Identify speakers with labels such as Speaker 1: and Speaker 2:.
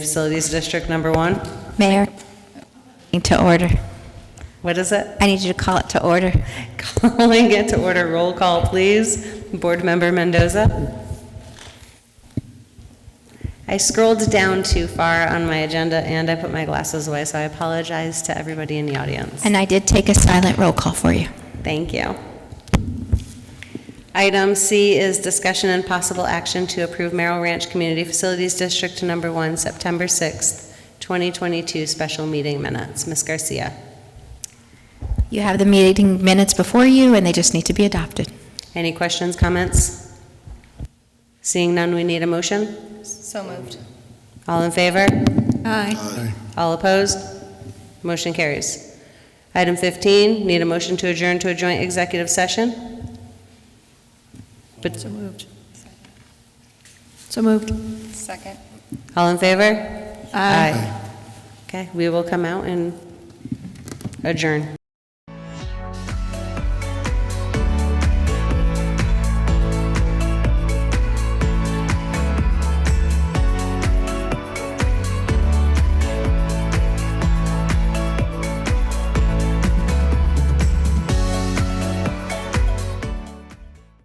Speaker 1: Facilities District Number One.
Speaker 2: Mayor, need to order.
Speaker 1: What is it?
Speaker 2: I need you to call it to order.
Speaker 1: Calling it to order. Roll call, please. Board Member Mendoza. I scrolled down too far on my agenda and I put my glasses away, so I apologize to everybody in the audience.
Speaker 2: And I did take a silent roll call for you.
Speaker 1: Thank you. Item C is discussion and possible action to approve Merrill Ranch Community Facilities District Number One, September 6th, 2022 special meeting minutes. Ms. Garcia.
Speaker 2: You have the meeting minutes before you, and they just need to be adopted.
Speaker 1: Any questions, comments? Seeing none, we need a motion.
Speaker 3: So moved.
Speaker 1: All in favor?
Speaker 3: Aye.
Speaker 1: All opposed? Motion carries. Item 15, need a motion to adjourn to a joint executive session? But,
Speaker 3: So moved. So moved. Second.
Speaker 1: all in favor? Aye. Okay, we will come out and adjourn.